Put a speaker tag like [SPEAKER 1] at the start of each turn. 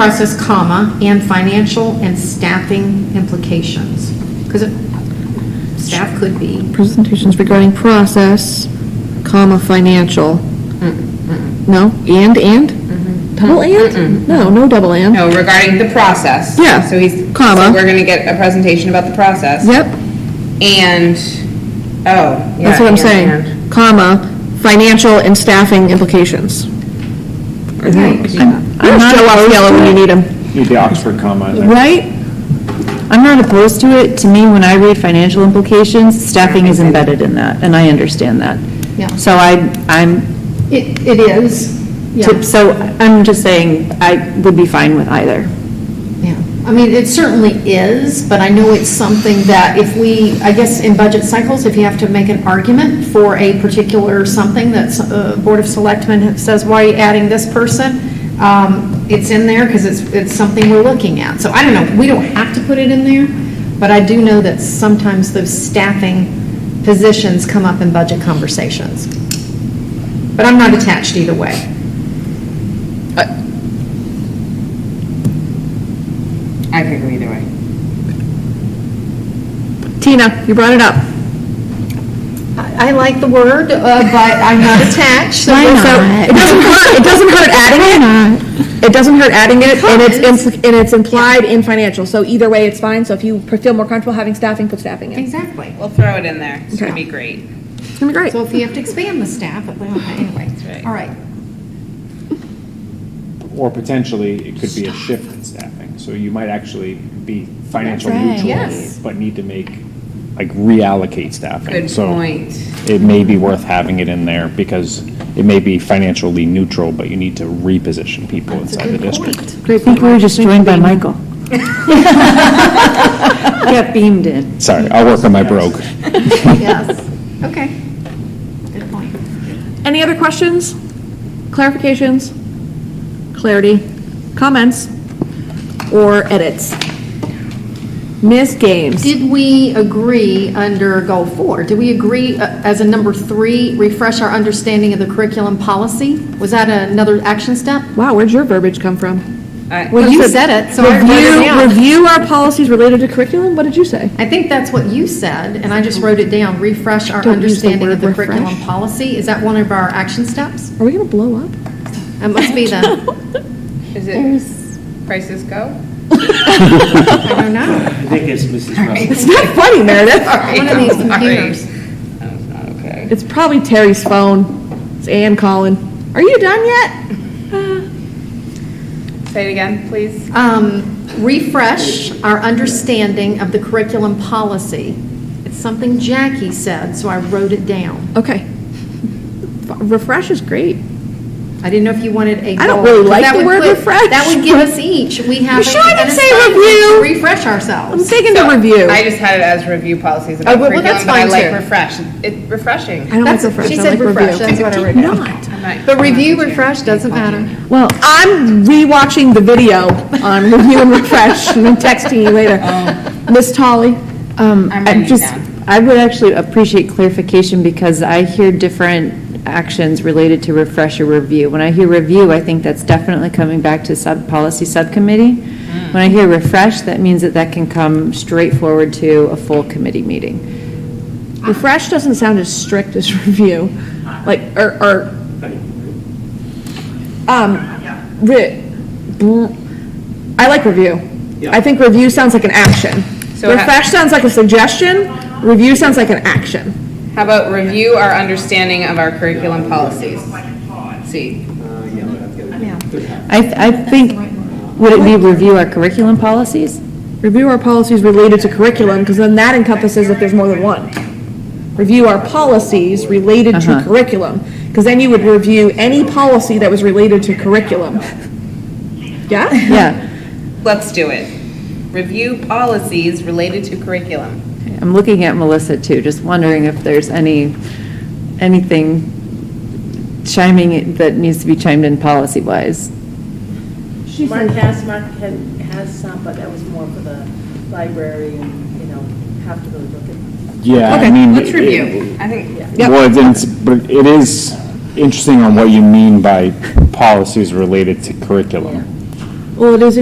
[SPEAKER 1] process, comma, and financial and staffing implications. Because staff could be,
[SPEAKER 2] Presentations regarding process, comma, financial. No, and, and? Double and? No, no double and.
[SPEAKER 3] Mm-hmm. No, regarding the process.
[SPEAKER 2] Yeah,
[SPEAKER 3] So he's,
[SPEAKER 2] comma.
[SPEAKER 3] so we're gonna get a presentation about the process.
[SPEAKER 2] Yep,
[SPEAKER 3] And, oh. yeah,
[SPEAKER 2] that's what I'm
[SPEAKER 3] and-
[SPEAKER 2] saying. Comma, financial and staffing implications. I think. There's Joe Osceola when you need him,
[SPEAKER 4] Need the Oxford comma in there.
[SPEAKER 5] Right? I'm not opposed to it. To me, when I read financial implications, staffing is embedded in that, and I understand that.
[SPEAKER 1] Yeah.
[SPEAKER 5] So I, I'm,
[SPEAKER 1] it, it is, yeah,
[SPEAKER 5] to- so I'm just saying, I would be fine with either.
[SPEAKER 1] yeah. I mean, it certainly is, but I know it's something that if we, I guess in budget cycles, if you have to make an argument for a particular something that's, uh, Board of Selectmen says, why are you adding this person? Um, it's in there because it's, it's something we're looking at. So I don't know, we don't have to put it in there, but I do know that sometimes those staffing positions come up in budget conversations. But I'm not attached either way.
[SPEAKER 3] I could go either way.
[SPEAKER 2] Tina, you brought it up.
[SPEAKER 1] I I like the word, uh, but I'm not attached. so-
[SPEAKER 2] So, It doesn't hurt, it doesn't hurt adding it. It doesn't hurt adding it, and it's, impl- and it's implied in financial, so either way, it's fine. So if you feel more comfortable having staffing, put staffing in.
[SPEAKER 1] Exactly.
[SPEAKER 3] We'll throw it in there. It's gonna
[SPEAKER 2] Okay.
[SPEAKER 3] be great.
[SPEAKER 2] It's gonna be great.
[SPEAKER 1] So if you have to expand the staff, but well, anyway,
[SPEAKER 3] right.
[SPEAKER 1] all right.
[SPEAKER 4] Or potentially, it could be a shift in staffing, so you might actually be financial
[SPEAKER 5] That's right.
[SPEAKER 4] neutral,
[SPEAKER 1] Yes.
[SPEAKER 4] but need to make, like, reallocate staffing.
[SPEAKER 3] Good
[SPEAKER 4] So
[SPEAKER 3] point.
[SPEAKER 4] It may be worth having it in there, because it may be financially neutral, but you need to reposition people inside the district.
[SPEAKER 5] I think we were just joined by Michael. Got beamed in.
[SPEAKER 4] Sorry, I'll work on my brogue.
[SPEAKER 1] Yes, okay. Good point.
[SPEAKER 2] Any other questions? Clarifications? Clarity? Comments? Or edits? Miss Games?
[SPEAKER 1] Did we agree under goal four? Did we agree uh, as a number three, refresh our understanding of the curriculum policy? Was that another action step?
[SPEAKER 2] Wow, where'd your verbiage come from?
[SPEAKER 3] I,
[SPEAKER 1] Well, you said it, so I wrote it
[SPEAKER 2] Review,
[SPEAKER 1] down.
[SPEAKER 2] review our policies related to curriculum? What did you say?
[SPEAKER 1] I think that's what you said, and I just wrote it down, refresh our
[SPEAKER 2] Don't use the
[SPEAKER 1] understanding of
[SPEAKER 2] word
[SPEAKER 1] the curriculum
[SPEAKER 2] refresh.
[SPEAKER 1] policy. Is that one of our action steps?
[SPEAKER 2] Are we gonna blow up?
[SPEAKER 1] It must be the.
[SPEAKER 3] is it prices go?
[SPEAKER 1] I don't know.
[SPEAKER 6] I think it's Mrs. Russell.
[SPEAKER 2] It's not funny, Meredith.
[SPEAKER 1] One of these computers.
[SPEAKER 3] That's not okay.
[SPEAKER 2] It's probably Terry's phone. It's Ann calling. Are you done yet?
[SPEAKER 3] Say it again, please.
[SPEAKER 1] Um, refresh our understanding of the curriculum policy. It's something Jackie said, so I wrote it down.
[SPEAKER 2] Okay. F- Refresh is great.
[SPEAKER 1] I didn't know if you wanted a.
[SPEAKER 2] I don't
[SPEAKER 1] goal,
[SPEAKER 2] really like
[SPEAKER 1] that
[SPEAKER 2] the
[SPEAKER 1] would
[SPEAKER 2] word
[SPEAKER 1] put-
[SPEAKER 2] refresh,
[SPEAKER 1] That would give us each, we have.
[SPEAKER 2] You sure I
[SPEAKER 1] an
[SPEAKER 2] didn't say
[SPEAKER 1] assignment
[SPEAKER 2] review?
[SPEAKER 1] to Refresh
[SPEAKER 2] I'm
[SPEAKER 1] ourselves.
[SPEAKER 2] taking the
[SPEAKER 3] So,
[SPEAKER 2] review.
[SPEAKER 3] I just had it as review policies
[SPEAKER 1] Oh,
[SPEAKER 3] about
[SPEAKER 1] well, well, that's
[SPEAKER 3] curriculum, but I
[SPEAKER 1] fine,
[SPEAKER 3] like
[SPEAKER 1] too.
[SPEAKER 3] refresh. It's refreshing.
[SPEAKER 2] I don't like
[SPEAKER 1] That's-
[SPEAKER 2] refresh.
[SPEAKER 1] She
[SPEAKER 2] I
[SPEAKER 1] said
[SPEAKER 2] like
[SPEAKER 1] refresh, that's what I wrote down.
[SPEAKER 2] Not.
[SPEAKER 3] I'm not-
[SPEAKER 1] But review, refresh, doesn't matter.
[SPEAKER 2] Well, I'm rewatching the video on review and refresh and then texting you later.
[SPEAKER 3] Oh.
[SPEAKER 2] Miss Tolly?
[SPEAKER 5] Um,
[SPEAKER 3] I'm
[SPEAKER 5] I
[SPEAKER 3] writing it
[SPEAKER 5] just,
[SPEAKER 3] down.
[SPEAKER 5] I would actually appreciate clarification because I hear different actions related to refresh or review. When I hear review, I think that's definitely coming back to sub, policy subcommittee.
[SPEAKER 3] Mm.
[SPEAKER 5] When I hear refresh, that means that that can come straight forward to a full committee meeting.
[SPEAKER 2] Refresh doesn't sound as strict as review, like, or, or, um, re- bl- I like review. I think review sounds like an action.
[SPEAKER 3] So ha-
[SPEAKER 2] Refresh sounds like a suggestion, review sounds like an action.
[SPEAKER 3] How about review our understanding of our curriculum policies? See,
[SPEAKER 5] I, th- I think, would it be review our curriculum policies?
[SPEAKER 2] Review our policies related to curriculum, because then that encompasses if there's more than one. Review our policies related to
[SPEAKER 5] Uh-huh.
[SPEAKER 2] curriculum, because then you would review any policy that was related to curriculum. Yeah?
[SPEAKER 5] Yeah,
[SPEAKER 3] let's do it. Review policies related to curriculum.
[SPEAKER 5] I'm looking at Melissa too, just wondering if there's any, anything chiming, that needs to be chimed in policy-wise.
[SPEAKER 7] Mark has, Mark had- has some, but that was more for the library and, you know, have to really look at.
[SPEAKER 4] Yeah, I
[SPEAKER 2] Okay,
[SPEAKER 4] mean.
[SPEAKER 3] Let's
[SPEAKER 4] it-
[SPEAKER 3] review. I think,
[SPEAKER 2] Yep.
[SPEAKER 4] Well, then it's, but it is interesting on what you mean by policies related to curriculum.
[SPEAKER 8] Well, it is